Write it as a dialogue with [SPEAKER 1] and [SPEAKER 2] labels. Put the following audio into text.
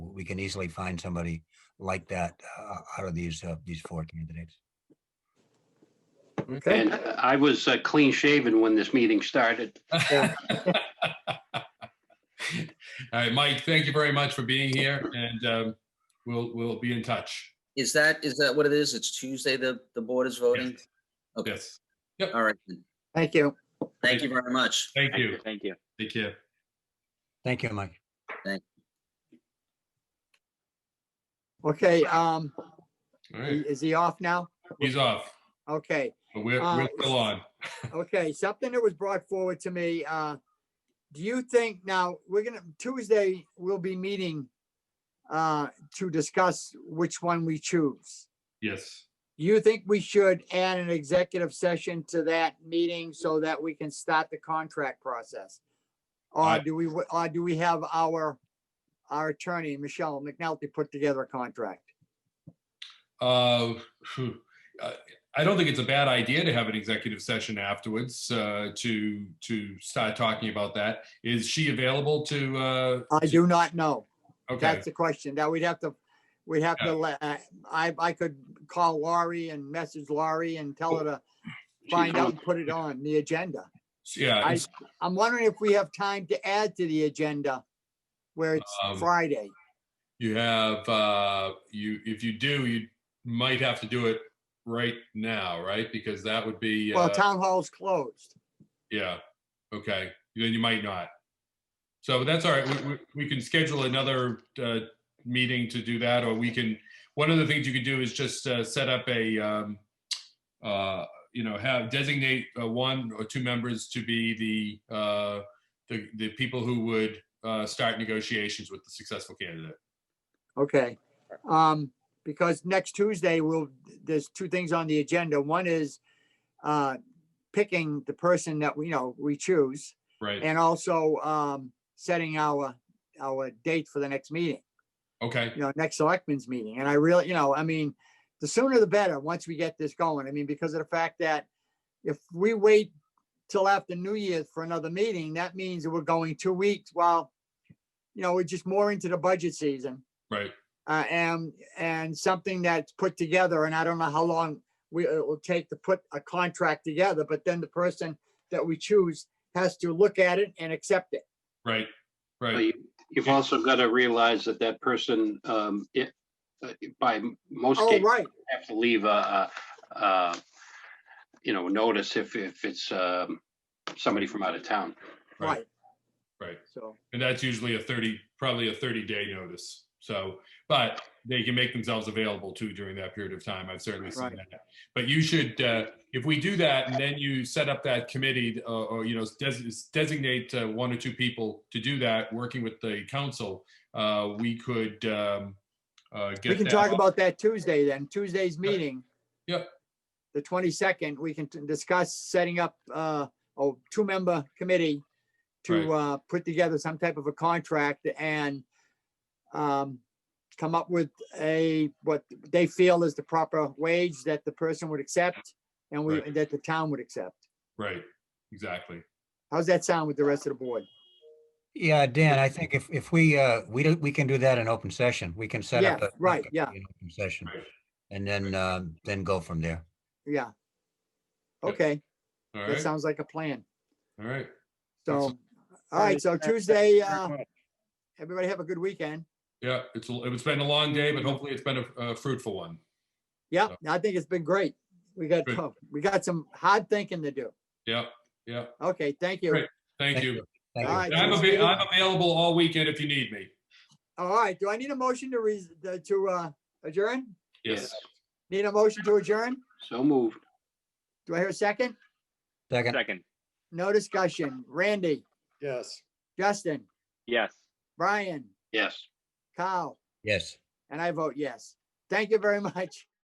[SPEAKER 1] we can easily find somebody like that uh, out of these, uh, these four candidates.
[SPEAKER 2] Okay.
[SPEAKER 3] And I was uh, clean shaven when this meeting started.
[SPEAKER 2] Yeah.
[SPEAKER 4] All right, Mike, thank you very much for being here and um, we'll, we'll be in touch.
[SPEAKER 5] Is that, is that what it is? It's Tuesday, the, the board is voting? Okay.
[SPEAKER 4] Yes,
[SPEAKER 5] All right. then.
[SPEAKER 2] Thank you.
[SPEAKER 5] Thank you very much.
[SPEAKER 4] thank you.
[SPEAKER 3] Thank you.
[SPEAKER 4] Take care.
[SPEAKER 1] Thank you, Mike.
[SPEAKER 2] Okay, um,
[SPEAKER 4] All right,
[SPEAKER 2] is he off now?
[SPEAKER 4] he's off,
[SPEAKER 2] Okay,
[SPEAKER 4] but we're,
[SPEAKER 2] Uh,
[SPEAKER 4] we're still on.
[SPEAKER 2] okay, something that was brought forward to me, uh, do you think now, we're gonna, Tuesday, we'll be meeting uh, to discuss which one we choose.
[SPEAKER 4] Yes.
[SPEAKER 2] You think we should add an executive session to that meeting so that we can start the contract process? Or
[SPEAKER 4] I-
[SPEAKER 2] do we, or do we have our, our attorney, Michelle McNulty, put together a contract?
[SPEAKER 4] Uh, phew. Uh, I don't think it's a bad idea to have an executive session afterwards uh, to, to start talking about that. Is she available to, uh,
[SPEAKER 2] I do not know.
[SPEAKER 4] okay,
[SPEAKER 2] That's the question. Now we'd have to, we'd have to, let- uh, I, I could call Laurie and message Laurie and tell her to find out and put it on the agenda.
[SPEAKER 4] yeah.
[SPEAKER 2] I,
[SPEAKER 4] it's-
[SPEAKER 2] I'm wondering if we have time to add to the agenda where it's
[SPEAKER 4] Um,
[SPEAKER 2] Friday.
[SPEAKER 4] You have, uh, you, if you do, you might have to do it right now, right? Because that would be,
[SPEAKER 2] Well,
[SPEAKER 4] uh,
[SPEAKER 2] town hall's closed.
[SPEAKER 4] yeah, okay, then you might not. So but that's all right, we, we, we can schedule another, uh, meeting to do that, or we can, one of the things you could do is just, uh, set up a, um, uh, you know, have, designate, uh, one or two members to be the, uh, the, the people who would, uh, start negotiations with the successful candidate.
[SPEAKER 2] Okay. Um, because next Tuesday, we'll, there's two things on the agenda. One is, uh, picking the person that we, you know, we choose.
[SPEAKER 4] Right,
[SPEAKER 2] And also, um, setting our, our date for the next meeting,
[SPEAKER 4] okay,
[SPEAKER 2] you know, next selectmen's meeting. And I really, you know, I mean, the sooner the better, once we get this going. I mean, because of the fact that if we wait till after New Year's for another meeting, that means that we're going two weeks while, you know, we're just more into the budget season
[SPEAKER 4] right,
[SPEAKER 2] uh, and and something that's put together, and I don't know how long we, it will take to put a contract together, but then the person that we choose has to look at it and accept it.
[SPEAKER 4] right,
[SPEAKER 3] But
[SPEAKER 4] right,
[SPEAKER 3] you- You've also got to realize that that person, um, it, uh, by m- most
[SPEAKER 2] Oh,
[SPEAKER 3] cases,
[SPEAKER 2] right,
[SPEAKER 3] have to leave a, a, a, you know, notice if, if it's, um, somebody from out of town.
[SPEAKER 4] right.
[SPEAKER 2] right.
[SPEAKER 4] right.
[SPEAKER 2] So,
[SPEAKER 4] And that's usually a 30, probably a 30 day notice. So, but they can make themselves available too during that period of time. I've certainly seen
[SPEAKER 2] Right.
[SPEAKER 4] that. But you should, uh, if we do that and then you set up that committee uh, or, you know, des- designate uh, one or two people to do that, working with the council, uh, we could um, uh, get
[SPEAKER 2] we can
[SPEAKER 4] that
[SPEAKER 2] talk
[SPEAKER 4] up.
[SPEAKER 2] about that Tuesday then, Tuesday's meeting.
[SPEAKER 4] Yep.
[SPEAKER 2] The twenty-second, we can t- discuss setting up uh, a two-member committee to uh, put together some type of a contract and um, come up with a, what they feel is the proper wage that the person would accept and we,
[SPEAKER 4] Right.
[SPEAKER 2] that the town would accept.
[SPEAKER 4] Right, exactly.
[SPEAKER 2] How's that sound with the rest of the board?
[SPEAKER 1] Yeah, Dan, I think if, if we, uh, we, don't- we can do that in open session. We can set up.
[SPEAKER 2] Yeah,
[SPEAKER 1] a-
[SPEAKER 2] right, yeah.
[SPEAKER 1] an open Session
[SPEAKER 4] Right.
[SPEAKER 1] and then, um, then go from there.
[SPEAKER 2] Yeah.
[SPEAKER 4] Yep.
[SPEAKER 2] Okay,
[SPEAKER 4] All
[SPEAKER 2] that
[SPEAKER 4] right, all
[SPEAKER 2] sounds like a plan.
[SPEAKER 4] right.
[SPEAKER 2] So, all right, so Tuesday, uh, everybody have a good weekend.
[SPEAKER 4] Yeah, it's, a- it's been a long day, but hopefully it's been a- a fruitful one.
[SPEAKER 2] Yeah,
[SPEAKER 4] So-
[SPEAKER 2] I think it's been great. We got,
[SPEAKER 4] Good.
[SPEAKER 2] oh, we got some hard thinking to do.
[SPEAKER 4] Yep, yep.
[SPEAKER 2] Okay, thank you.
[SPEAKER 4] Great. Thank
[SPEAKER 1] Thank
[SPEAKER 4] you.
[SPEAKER 1] you. Thank you.
[SPEAKER 2] All right,
[SPEAKER 4] I'm,
[SPEAKER 2] so
[SPEAKER 4] avai-
[SPEAKER 2] Steve-
[SPEAKER 4] I'm available all weekend if you need me.
[SPEAKER 2] All right, do I need a motion to res, uh, to, uh, adjourn?
[SPEAKER 4] Yes.
[SPEAKER 2] Need a motion to adjourn?
[SPEAKER 3] So moved.
[SPEAKER 2] Do I hear a second?
[SPEAKER 1] Second,
[SPEAKER 6] Second,
[SPEAKER 2] No discussion. Randy,
[SPEAKER 7] Yes.
[SPEAKER 2] Justin,
[SPEAKER 6] yes.
[SPEAKER 2] Brian,
[SPEAKER 3] Yes.
[SPEAKER 2] Kyle,
[SPEAKER 1] yes.
[SPEAKER 2] and I vote yes. Thank you very much.